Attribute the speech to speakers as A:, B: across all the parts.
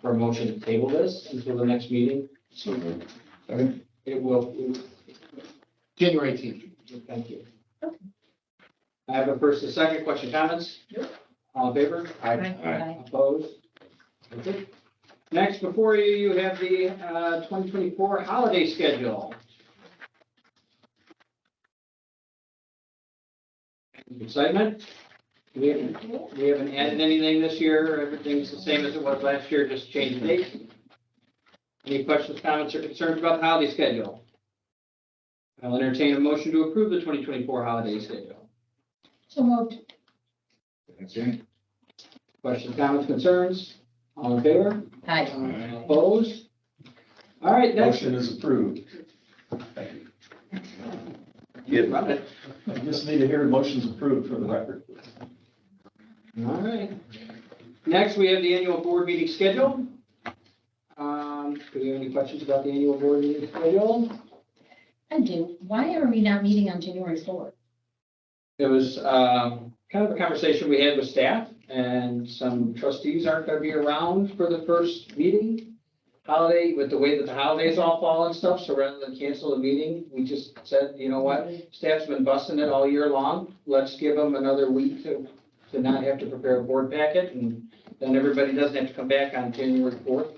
A: for a motion to table this until the next meeting.
B: So moved.
A: It will,
C: January eighteenth.
A: thank you. I have a first, a second, question, comments?
D: Nope.
A: All in favor?
B: Aye.
A: Opposed? That's it. Next, before you, you have the uh, 2024 holiday schedule. Excitement? We haven't, we haven't added anything this year. Everything's the same as it was last year, just changed dates. Any questions, comments, or concerns about the holiday schedule? I'll entertain a motion to approve the 2024 holiday schedule.
D: So moved.
B: Second.
A: Questions, comments, concerns? All in favor?
D: Aye.
E: Uh,
B: Aye.
A: Opposed? All right, next.
B: Motion is approved. Thank you. Get
A: Run it.
B: I just need to hear motion's approved for the record.
A: All right. Next, we have the annual board meeting schedule. Um, do we have any questions about the annual board meeting schedule?
D: I do. Why are we not meeting on January fourth?
A: It was, um, kind of a conversation we had with staff and some trustees aren't gonna be around for the first meeting. Holiday, with the way that the holidays all fall and stuff, so rather than cancel the meeting, we just said, you know what? Staff's been busting it all year long. Let's give them another week to, to not have to prepare a board packet and then everybody doesn't have to come back on January fourth.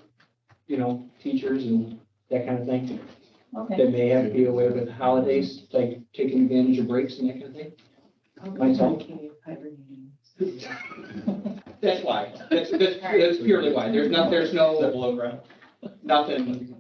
A: You know, teachers and that kind of thing.
D: Okay.
A: They may have to be away with holidays, like taking advantage of breaks and that kind of thing. Myself. That's why. That's, that's, that's purely why. There's not, there's no,
B: below ground?
A: nothing,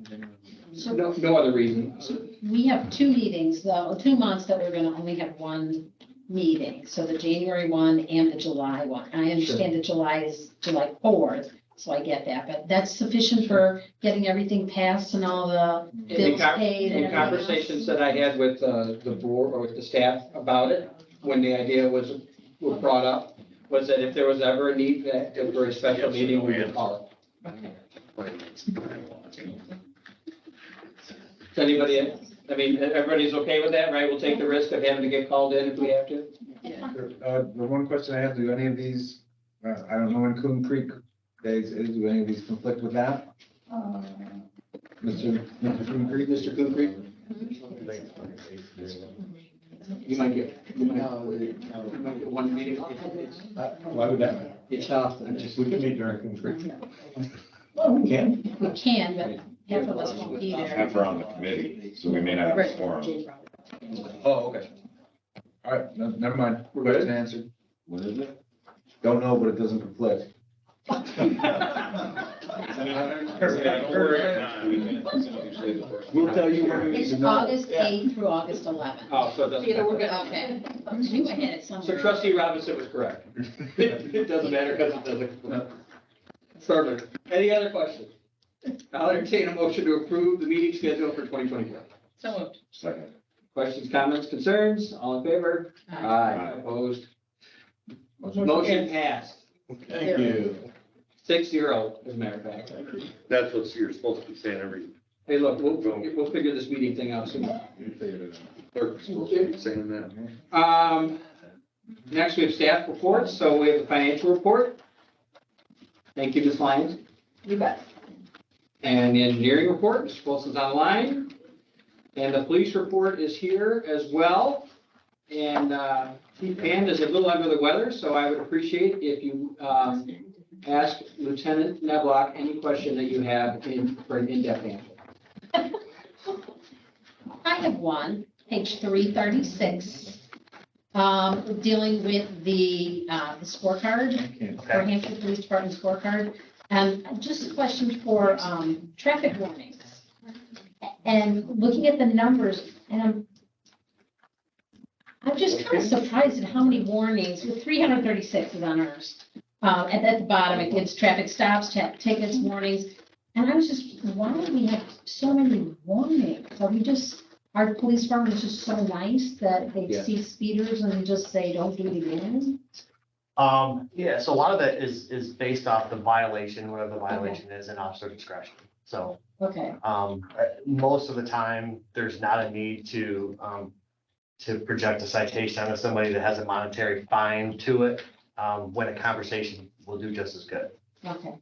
D: So
A: no, no other reason.
D: we have two meetings, though, two months that we're gonna only have one meeting. So the January one and the July one. I understand that July is July fourth, so I get that, but that's sufficient for getting everything passed and all the
A: In
D: bills
A: the con-
D: paid and
A: in
D: everything else.
A: conversations that I had with, uh, the board or with the staff about it, when the idea was, were brought up, was that if there was ever a need that, for a special meeting, we would call it. Does anybody, I mean, everybody's okay with that, right? We'll take the risk of having to get called in if we have to.
E: Uh, the one question I have, do any of these, uh, I don't know when Coon Creek days is, do any of these conflict with that? Uh, Mr. Mr. Coon Creek?
A: Mr. Coon Creek? You might get, you might, you might get uh, one meeting.
B: Uh, Why would that matter?
A: It's off.
B: I just- We can meet during Coon Creek. Well, we can.
D: We can, but half of us won't be there.
F: Half are on the committee, so we may not have a forum.
E: Oh, okay. All right, no, never mind.
A: We're good?
E: Question answered.
F: What is it?
E: Don't know, but it doesn't conflict.
B: We'll tell you when we need
D: It's
B: to know.
D: August eighth through August eleventh.
A: Oh, so it doesn't matter.
D: Okay, you had it
A: So
D: somewhere.
A: trustee Robinson was correct. It doesn't matter because it doesn't. Perfect. Any other questions? I'll entertain a motion to approve the meeting schedule for 2024.
D: So moved.
F: Second.
A: Questions, comments, concerns? All in favor?
D: uh,
F: Aye.
A: Opposed? Motion passed.
B: Thank you.
A: Six zero, as a matter of fact.
G: That's what you're supposed to be saying every,
A: Hey, look, we'll, we'll figure this meeting thing out soon.
G: clerk's supposed to be saying that.
A: Um, next we have staff reports. So we have the financial report. Thank you, Ms. Lyons.
D: You bet.
A: And the engineering report, Mr. Wilson's online. And the police report is here as well. And uh, Chief Hand is a little under the weather, so I would appreciate if you um, ask Lieutenant Neblock any question that you have in, for an in-depth answer.
D: I have one, page three thirty-six, um, dealing with the, uh, the scorecard, for Hampshire Police Department scorecard. Um, just a question for, um, traffic warnings. And looking at the numbers, and I'm, I'm just kind of surprised at how many warnings, with three hundred thirty-six is on ours. Um, and at the bottom, it gives traffic stops, ta- tickets, warnings, and I was just, why do we have so many warnings? Are we just, our police department is just so nice that they
A: Yeah.
D: see speeders and just say, don't do it again?
H: Um, yeah, so a lot of that is, is based off the violation, whatever the violation is and officer discretion. So,
D: Okay,
H: um, uh, most of the time, there's not a need to, um, to project a citation onto somebody that has a monetary fine to it, um, when a conversation will do just as good.
D: okay,